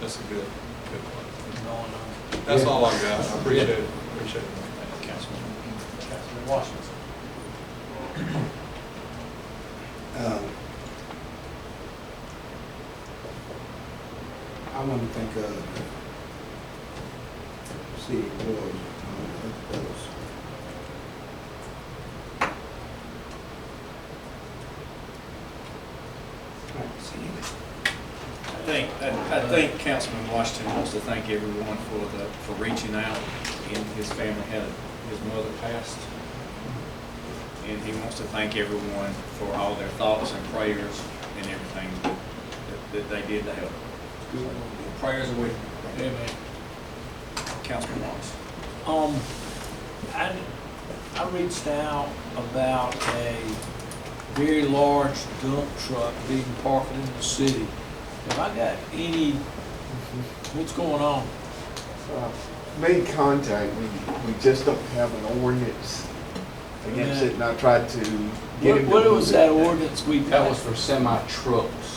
That's a good, good one. No one, uh, That's all I got. I appreciate it, appreciate it. thank you, Councilman, Councilman Washington. Um, I want to thank, uh, city board, uh, that was. Alright, see you later. I think, I I think uh, Councilman Washington wants to thank everyone for the, for reaching out. And his family had, his mother passed. And he wants to thank everyone for all their thoughts and prayers and everything that- that they did to help. So, Prayers away, Amen. Councilman Wallace. Um, I, I reached out about a very large dump truck being parked in the city. Have I got any, what's going on? Uh, Made contact, we, we just don't have an ordinance against it, and I tried to get What, him to. what was move that it. ordinance we That was passed? for semi trucks.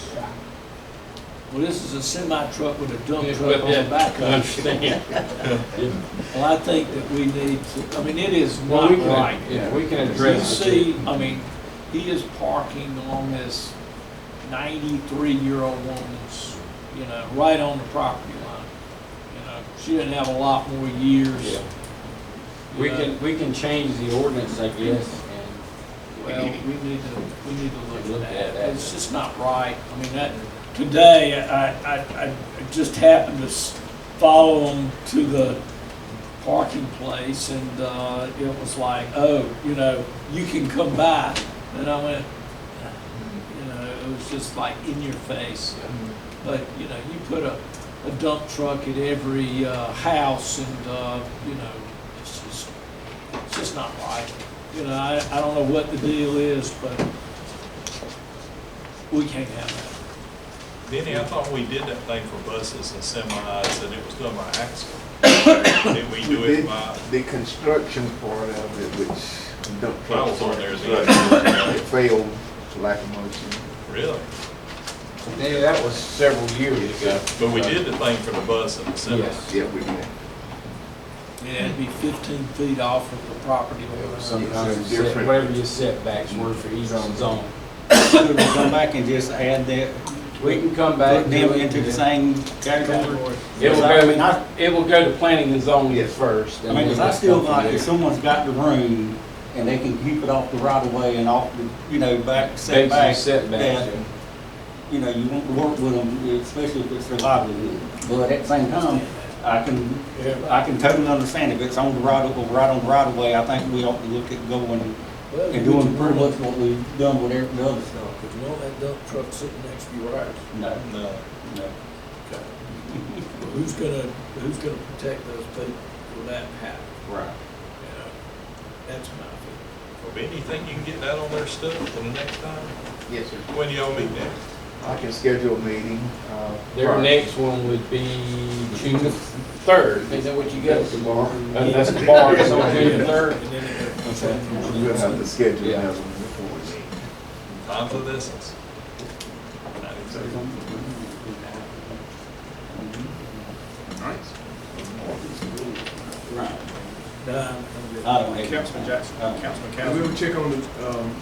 Well, this is a semi truck with a dump truck on the back I of it. understand. Well, I think that we need to, I mean, it is Well, not we can, right. yeah, we can You address see, it. I mean, he is parking on this ninety-three-year-old woman's, you know, right on the property line. You know, she didn't have a lot more years. Yeah. you We know. can, we can change the ordinance, I guess, and Well, we need to, we need to look Look at that. at that. It's just not right. I mean, that, today, I, I, I just happened to s- follow them to the parking place and, uh, it was like, oh, you know, you can come by. And I went, Mm-hmm. you know, it was just like in your face. But, you know, you put a, a dump truck at every, uh, house and, uh, you know, it's just, it's just not right. You know, I, I don't know what the deal is, but we can't have Benny, I thought we did that thing for buses and semis, and it was done by accident. Did we We do it did by, the construction part of it, which dump I trucks. was on there as It well. failed for lack of motion. Really? Yeah, that was several years ago. But we did the thing for the bus and the semi. Yes. Yeah, we did. that. It had to be fifteen feet off of the property line. Sometimes, It's different. whatever your setbacks were for each zone. Could we come back and just add that, We can come back. put them into the same category? Category. It will I mean, I- go, it will go to planning and zoning Yes. first. I mean, 'cause I still like, if someone's got the room and they can keep it off the right of way and off the, you know, back setback. Setbacks, setbacks. that, You know, you want to work with them, especially if it's their livelihood. But at the same time, I can, I can totally understand if it's on the right of, right on the right of way, I think we ought to look at going and doing pretty much what we've done with every other stuff. Because you know that dump truck sitting next to your house. No, No. no. Who's gonna, who's gonna protect those people when that happens? Right. You know, That's my feeling. Well, Benny, you think you can get that on their stuff for the next time? Yes, sir. When y'all meet next? I can schedule a meeting. uh, Their prior. next one would be June the third. Is that what you got? Tomorrow. Uh, That's the bar, it's on June the third. And then it goes- We'll have to schedule Yeah. another one before we meet. Times of essence. Right. Nah, I'm good. I don't have. Councilman Jackson, Oh. Councilman And we Cowles. will check on the, um,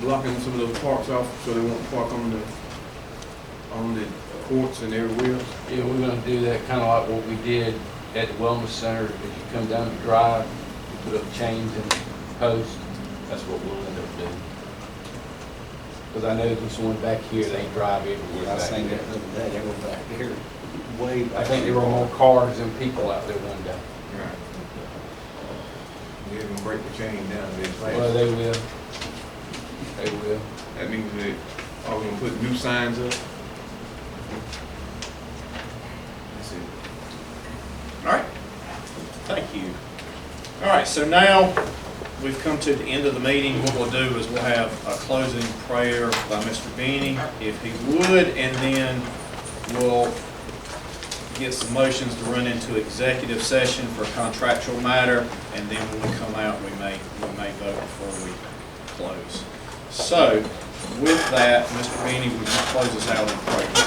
blocking some of those parks off, so they won't park on the, on the courts and everywhere else. Yeah, we're gonna do that kinda like what we did at the wellness center, if you come down the drive, you put up chains and posts, that's what we'll end up doing. Cause I know this one back here, they drive everywhere I back seen that there. the other day, they were back there, way back. I think there were more cars than people out there one day. We're gonna break the chain down a bit Well, fast. they will. They will. That means that, are we gonna put new signs up? That's it. All right, thank you. All right, so now we've come to the end of the meeting. What we'll do is we'll have a closing prayer by Mr. Beanie, if he would, and then we'll get some motions to run into executive session for contractual matter, and then when we come out, we may, we may vote before we close. So with that, Mr. Beanie, would you close us out in prayer?